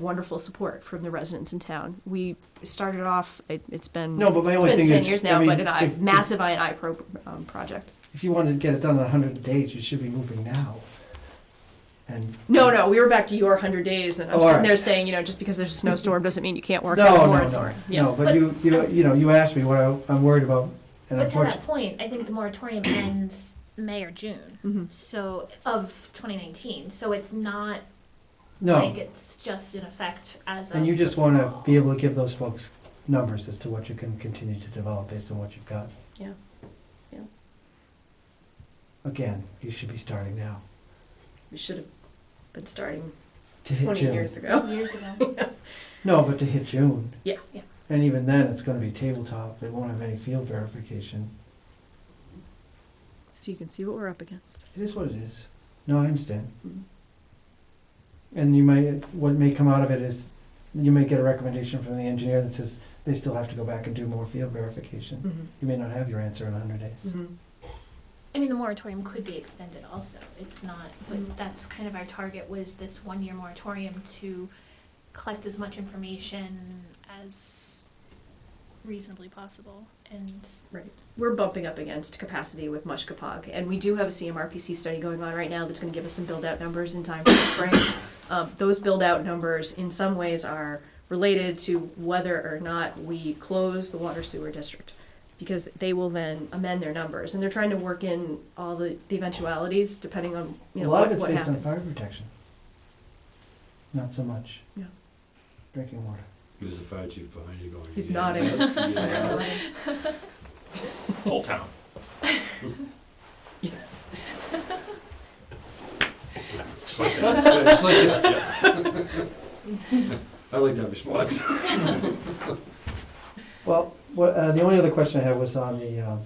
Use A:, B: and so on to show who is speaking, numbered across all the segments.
A: wonderful support from the residents in town. We started off, it, it's been
B: No, but my only
A: it's been
B: thing
A: ten
B: is,
A: years
B: I
A: now,
B: mean,
A: but an I,
B: if-
A: massive I and I pro, um, project.
B: If you wanted to get it done in hundred days, you should be moving now. And,
A: No, no, we were back to your hundred days, and I'm
B: Oh,
A: sitting
B: alright.
A: there saying, you know, just because there's a snowstorm doesn't mean you can't work on
B: no,
A: the
B: no,
A: warrants
B: no,
A: or, yeah.
B: no, but you, you know, you know, you asked me what I, I'm worried about, and
C: But to
B: unfortunately,
C: that point, I think the moratorium ends May or June,
A: Mhm.
C: so of 2019. So it's not like
B: no.
C: it's just in effect as of.
B: And you just wanna be able to give those folks numbers as to what you can continue to develop based on what you've got.
A: Yeah. Yeah.
B: Again, you should be starting now,
A: We should have been starting
B: to hit
A: twenty
B: June.
A: years ago.
C: years ago.
B: No, but to hit June.
A: Yeah.
C: Yeah.
B: And even then, it's gonna be tabletop, it won't have any field verification.
A: So you can see what we're up against.
B: It is what it is. No, I understand.
A: Mhm.
B: And you might, what may come out of it is, you may get a recommendation from the engineer that says they still have to go back and do more field verification.
A: Mm-hmm,
B: You may not have your answer in hundred days.
C: I mean, the moratorium could be extended also. It's not, but that's kind of our target was this one year moratorium to collect as much information as reasonably possible and.
A: We're bumping up against capacity with Mush Kapog, and we do have a CMRPC study going on right now that's gonna give us some build-out numbers in time for the spring. Um, those build-out numbers in some ways are related to whether or not we close the water sewer district. Because they will then amend their numbers, and they're trying to work in all the the eventualities depending on,
B: A
A: you know,
B: lot of
A: what
B: it's
A: what
B: based on
A: happens.
B: fire protection. Not so much.
A: Yeah.
B: Drinking water.
D: There's a fire chief behind you going.
A: He's
D: "Yeah,
A: nodding.
D: yes, yeah."
E: whole town. Just like that.
D: Yeah, just like that. I like that response.
B: Well, what, uh, the only other question I had was on the, um,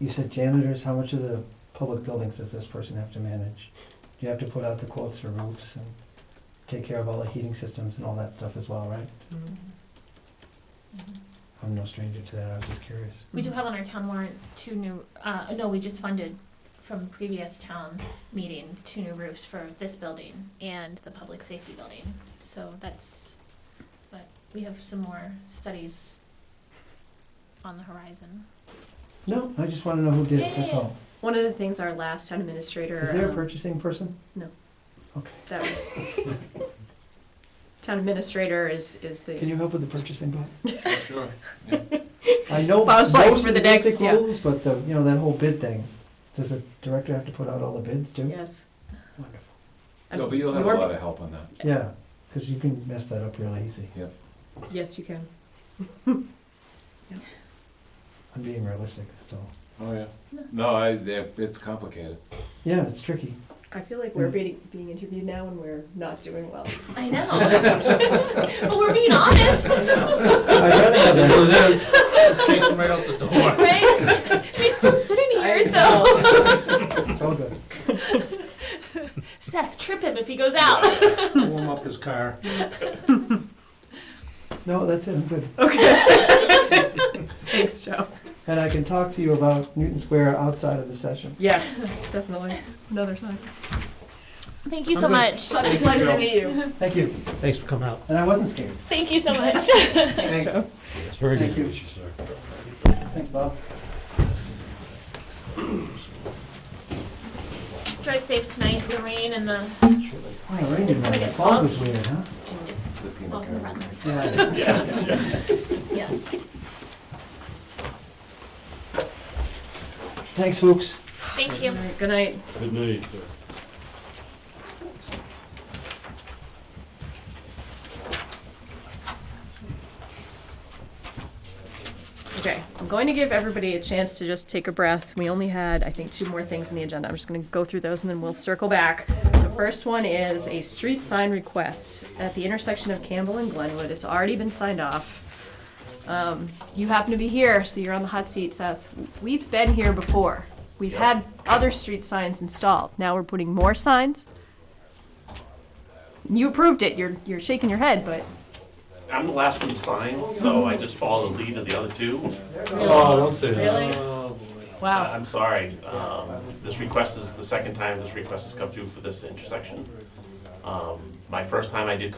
B: you said janitors, how much of the public buildings does this person have to manage? Do you have to put out the quotes for roofs and take care of all the heating systems and all that stuff as well, right?
C: Mm-hmm.
B: I'm no stranger to that, I was just curious.
C: We do
A: Mm-hmm.
C: have on our town warrant two new, uh, no, we just funded from previous town meeting, two new roofs for this building and the public safety building. So that's, but we have some more studies on the horizon.
B: No, I just wanna know who did it, that's all.
A: One of the things our last town administrator.
B: Is there a
A: um,
B: purchasing person?
A: that was- Town administrator is, is
B: Can
A: the,
B: you help with the purchasing part?
E: Sure. yeah.
B: I know
A: I was like,
B: most
A: for
B: of the
A: the next-
B: basic
A: yeah.
B: rules, but the, you know, that whole bid thing, does the director have to put out all the bids too?
A: yes.
B: Wonderful.
A: I
E: No,
A: mean,
E: but you'll have a
A: your-
E: lot of help on that.
B: Yeah, cause you can mess that up real easy,
A: Yes, you can.
B: I'm being realistic, that's all.
E: Oh, yeah.
C: No.
E: No, I, yeah, it's complicated.
B: Yeah, it's tricky.
A: I feel like
E: Mm.
A: we're being, being interviewed now and we're not doing well.
C: I know. But we're being honest,
B: I'd rather have that.
E: Chase him right out the door.
C: right? We're still sitting here, so
B: It's all good.
C: Seth, trip him if he goes out.
F: warm up his car.
B: No, that's it, I'm good.
A: Thanks, Joe.
B: And I can talk to you about Newton Square outside of the session.
A: Yes, definitely. Another time.
C: Thank you so much.
A: Such a pleasure to meet you.
B: Thank you.
F: Thanks for coming out.
B: And I wasn't scared.
C: Thank you so much.
B: Thanks.
D: It's very
B: Thank
D: good
B: you.
D: news, sir.
B: Thanks, Bob.
C: Drive safe tonight, in the rain and the,
B: Oh, it rained in
C: It's
B: there.
C: gonna
B: The
C: get
B: fog
C: fog.
B: was weird, huh?
E: The
C: well,
E: peanut
C: the
E: gallery.
C: weather.
B: Yeah.
C: yeah.
B: Thanks, folks.
C: Thank you.
A: Good night.
D: Good night, sir.
A: Okay, I'm going to give everybody a chance to just take a breath. We only had, I think, two more things on the agenda. I'm just gonna go through those and then we'll circle back. The first one is a street sign request at the intersection of Campbell and Glenwood. It's already been signed off. Um, you happen to be here, so you're on the hot seat, Seth. We've been here before. We've had other street signs installed. Now we're putting more signs. You approved it. You're, you're shaking your head, but
G: I'm the last one signed, so I just follow the lead of the other two.
D: Oh, don't say that. Oh,
A: really,
G: Uh,
A: wow.
G: I'm sorry, um, this request is the second time this request has come through for this intersection. Um, My first time I did